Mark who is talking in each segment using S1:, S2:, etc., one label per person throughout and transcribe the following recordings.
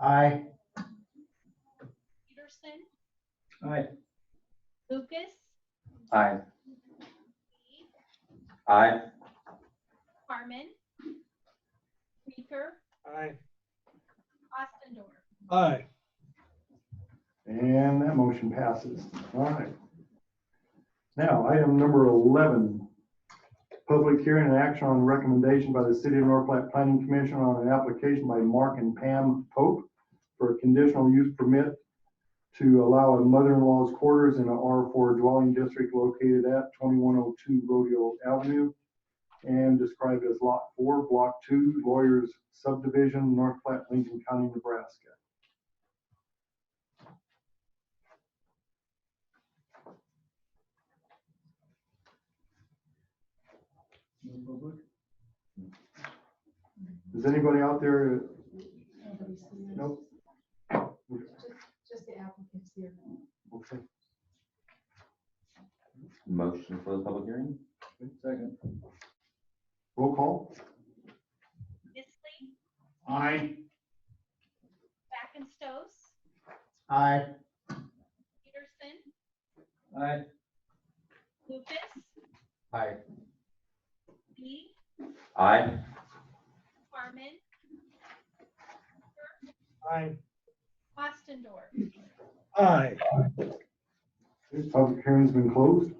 S1: Aye.
S2: Peterson,
S1: Aye.
S2: Lucas,
S3: Aye.
S2: Lee,
S3: Aye.
S2: Harmon, Meeker,
S4: Aye.
S2: Ostendorf.
S4: Aye.
S1: And that motion passes. All right. Now, item number 11, public hearing and action on recommendation by the City of North Platte Planning Commission on an application by Mark and Pam Pope for a conditional use permit to allow a mother-in-law's quarters in a R4 dwelling district located at 2102 Rodeo Avenue and described as Lot 4, Block 2, Lawyers Subdivision, North Platte, Lincoln County, Nebraska. Is anybody out there? Nope.
S5: Just the applicants here.
S1: Okay.
S3: Motion for the public hearing?
S1: Second. Roll call.
S2: Isley,
S1: Aye.
S2: Backenstos,
S1: Aye.
S2: Peterson,
S3: Aye.
S2: Lucas,
S3: Aye.
S2: Lee,
S3: Aye.
S2: Harmon,
S4: Aye.
S2: Ostendorf.
S4: Aye.
S1: Public hearing's been closed.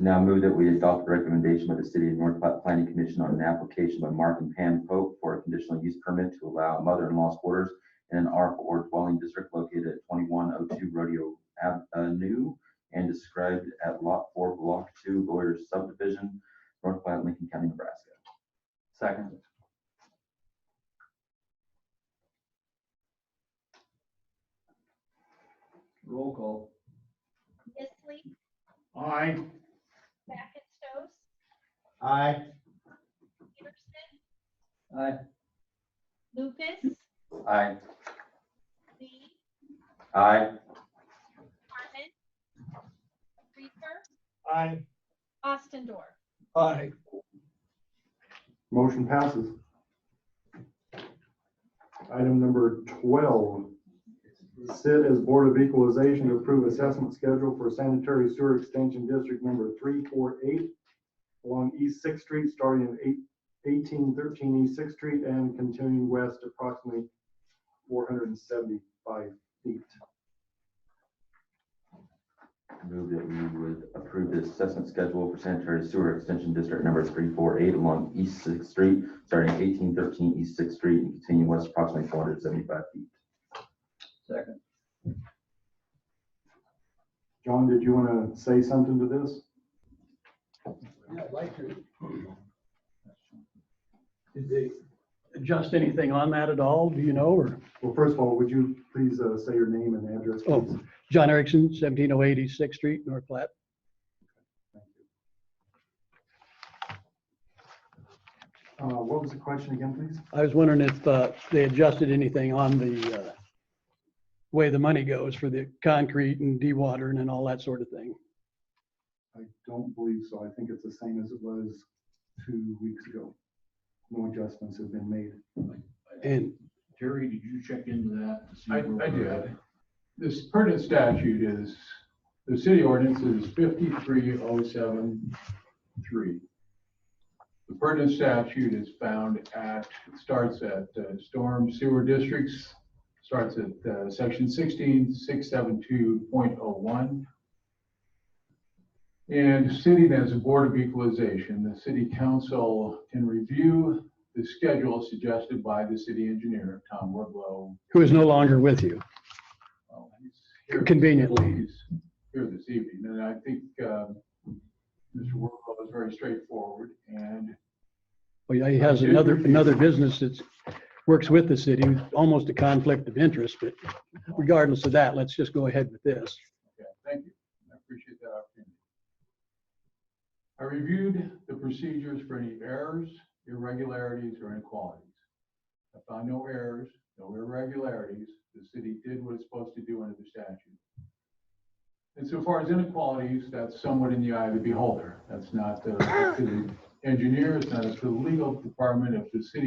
S3: Now move that we adopt the recommendation by the City of North Platte Planning Commission on an application by Mark and Pam Pope for a conditional use permit to allow mother-in-law's quarters in an R4 dwelling district located at 2102 Rodeo Avenue and described at Lot 4, Block 2, Lawyers Subdivision, North Platte, Lincoln County, Nebraska. Second.
S1: Roll call.
S2: Isley,
S1: Aye.
S2: Backenstos,
S1: Aye.
S2: Peterson,
S3: Aye.
S2: Lucas,
S3: Aye.
S2: Lee,
S3: Aye.
S2: Harmon, Meeker,
S4: Aye.
S2: Ostendorf.
S4: Aye.
S1: Motion passes. Item number twelve. Sit as Board of Equalization to approve assessment schedule for sanitary sewer extension district number three four eight along East Sixth Street, starting at eight- 1813 East Sixth Street and continuing west approximately four hundred and seventy-five feet.
S3: Move that we would approve the assessment schedule for sanitary sewer extension district number three four eight along East Sixth Street, starting eighteen thirteen East Sixth Street and continuing west approximately four hundred seventy-five feet.
S6: Second.
S1: John, did you want to say something to this?
S6: Yeah, I'd like to. Did they adjust anything on that at all? Do you know? Or
S1: Well, first of all, would you please uh, say your name and address?
S6: Oh.
S1: please?
S6: John Erickson, 1708 East Sixth Street, North Platte.
S1: Uh, What was the question again, please?
S6: I was wondering if uh, they adjusted anything on the uh, way the money goes for the concrete and dewatering and all that sort of thing.
S1: I don't believe so. I think it's the same as it was two weeks ago. No adjustments have been made.
S6: And
S7: Terry, did you check into that? to see
S8: I,
S7: where
S8: I
S7: we're at?
S8: did. This pertinent statute is, the city ordinance is fifty-three oh seven three. The pertinent statute is found at, starts at uh, storm sewer districts, starts at uh, section sixteen, six seven two point oh one. And sitting as a board of equalization, the city council can review the schedule suggested by the city engineer, Tom Wardlow,
S6: who is no longer with you?
S8: well, he's here-
S6: Conveniently.
S8: he's Here this evening, and I think um, Mr. Worklow is very straightforward, and
S6: Well, yeah, he has
S8: I do
S6: another,
S8: appreciate
S6: another
S8: it.
S6: business that's, works with the city, almost a conflict of interest, but regardless of that, let's just go ahead with this.
S8: yeah, thank you. I appreciate that opportunity. I reviewed the procedures for any errors, irregularities, or inequalities. I found no errors, no irregularities. The city did what it's supposed to do under the statute. And so far as inequalities, that's somewhat in the eye of the beholder. That's not uh, up to the engineer, it's not up to the legal department. If the city